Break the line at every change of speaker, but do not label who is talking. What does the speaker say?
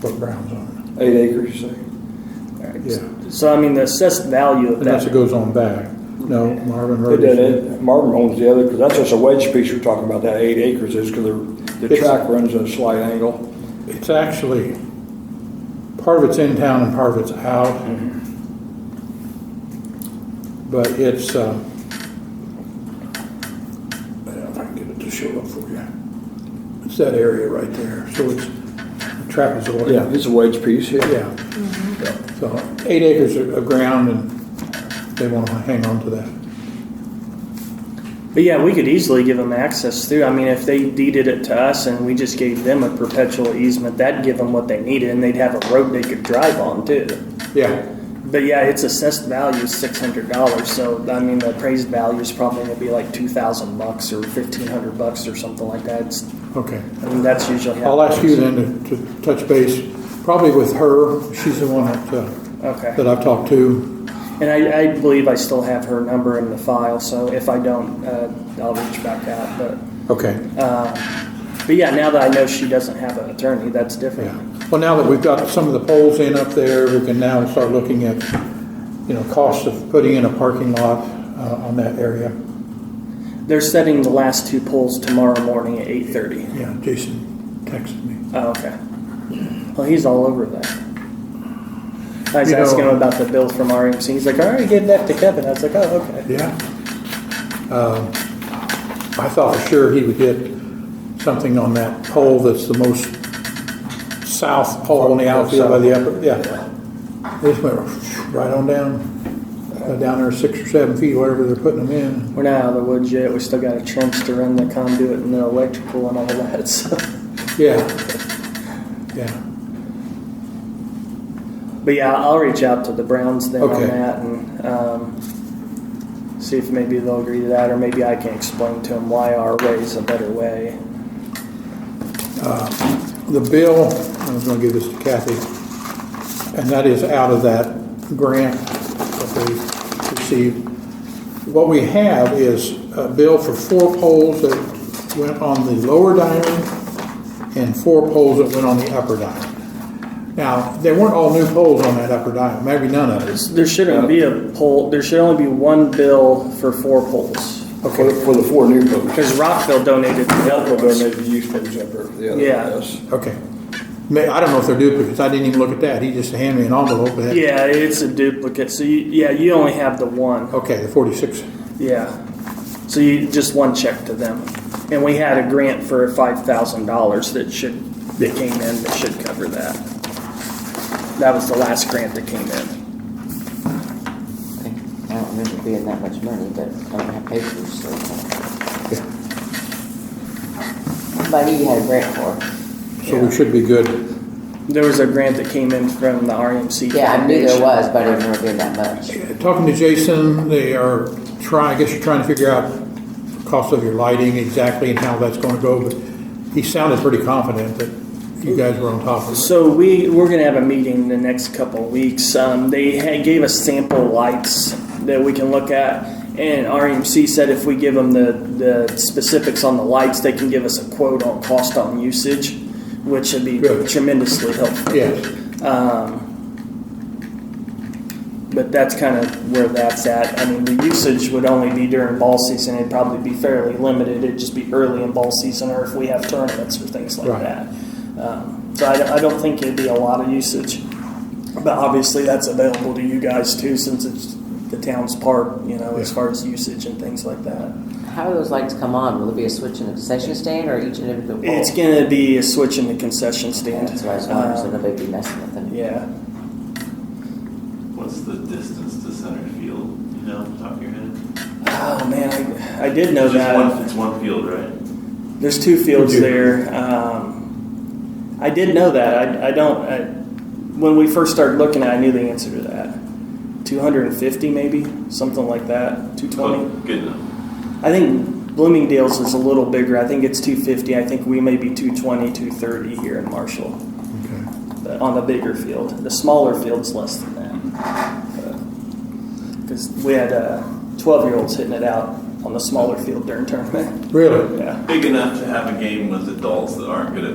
put grounds on
Eight acres, you say?
it, yeah.
So I mean, the assessed value of
Unless it
that.
goes on back. No, Marvin
But
Road
then
is,
it- Marvin owns the other, because that's just a wedge piece you're talking about, that eight acres is, because the
It's-
track runs at a slight angle.
it's actually, part of it's in town and part of it's out. But it's, um, I don't know if I can get it to show up for you. It's that area right there, so it's a trapezoid.
It's a wedge piece, yeah.
Yeah. So eight acres of of ground and they want to hang on to that.
But yeah, we could easily give them access through. I mean, if they deeded it to us and we just gave them a perpetual easement, that'd give them what they needed, and they'd have a road they could drive on too.
Yeah.
But yeah, its assessed value is six hundred dollars. So I mean, the appraised value is probably gonna be like two thousand bucks or fifteen hundred bucks or something like that. It's,
Okay.
I mean, that's usually. how
I'll
it
ask you
goes.
then to, to touch base, probably with her, she's the one that, uh,
Okay.
that I've talked to.
And I, I believe I still have her number in the file, so if I don't, uh, I'll reach back out. But,
Okay,
but yeah, now that I know she doesn't have an attorney, that's different.
yeah. Well, now that we've got some of the poles in up there, we can now start looking at, you know, cost of putting in a parking lot, uh, on that area.
They're setting the last two polls tomorrow morning at eight thirty.
Yeah, Jason texted me.
Oh, okay. Well, he's all over that. I was
You know-
asking him about the bill from RMC. He's like, I already gave that to Kevin. I was like, oh, okay.
Yeah. Um, I thought for sure he would get something on that pole that's the most south pole in the outfield by the upper, yeah. They just went right on down, uh, down there six or seven feet, whatever they're putting them in.
We're not out of the woods yet. We still got a trench to run the conduit and the electrical and all that. So.
Yeah. Yeah.
But yeah, I'll reach out to the Browns then
Okay.
on that and um, see if maybe they'll agree to that, or maybe I can explain to them why our way is a better way.
The bill, I was gonna give this to Kathy, and that is out of that grant that we received. What we have is a bill for four poles that went on the lower diamond and four poles that went on the upper diamond. Now, they weren't all new poles on that upper diamond, maybe none of it.
There shouldn't be a poll. There should only be one bill for four polls
For, for the four new folks.
because Rockville donated the other ones.
Donated use folks up there for the other,
Yeah.
yes.
Okay. May, I don't know if they're duplicates, I didn't even look at that, he just handed me an envelope with that.
Yeah, it's a duplicate. So you, yeah, you only have the one.
Okay, the forty-six,
Yeah. So you just one check to them, and we had a grant for five thousand dollars that should that came in that should cover that. That was the last grant that came in.
I think- I don't remember being that much money, but I don't have papers, so. But you had a grant for.
so we should be good.
There was a grant that came in from the RMC.
Yeah, I knew there
Foundation.
was, but I didn't remember being that much.
Talking to Jason, they are trying, I guess you're trying to figure out cost of your lighting exactly and how that's gonna go, but he sounded pretty confident that you guys were on top of it.
So we we're gonna have a meeting in the next couple of weeks. Um, they had, gave us sample lights that we can look at, and RMC said if we give them the the specifics on the lights, they can give us a quote on cost on usage, which would be
Good.
tremendously helpful.
Yes,
Um, But that's kind of where that's at. I mean, the usage would only be during ball season. It'd probably be fairly limited. It'd just be early in ball season or if we have tournaments or things like
Right.
that. Um, so I, don't- I don't think it'd be a lot of usage. But obviously, that's available to you guys too, since it's the town's part, you know, as
Yeah.
far as usage and things like that.
How do those lights come on? Will it be a switch in the concession stand or each and every pole?
It's going to be a switch in the concession stand.
That's what I was wondering, so
Um,
nobody'd be messing with them.
yeah.
What's the distance to center field? You know, off the top of your head.
Oh, man, I, I did know
It's just
that.
one, it's one field, right?
There's two fields
Would you-
there. Um, I did know that. I, I don't. I, when we first started looking at, it, I knew the answer to that. 250, maybe something like that. 220.
Oh, Good enough.
I think Bloomingdale's is a little bigger. I think it's 250. I think we may be 220, 230 here in Marshall
okay.
but on the bigger field. The smaller field's less than that. Because we had uh, 12 year olds hitting it out on the smaller field during tournament.
Really?
Yeah.
Big enough to have a game with adults that aren't good at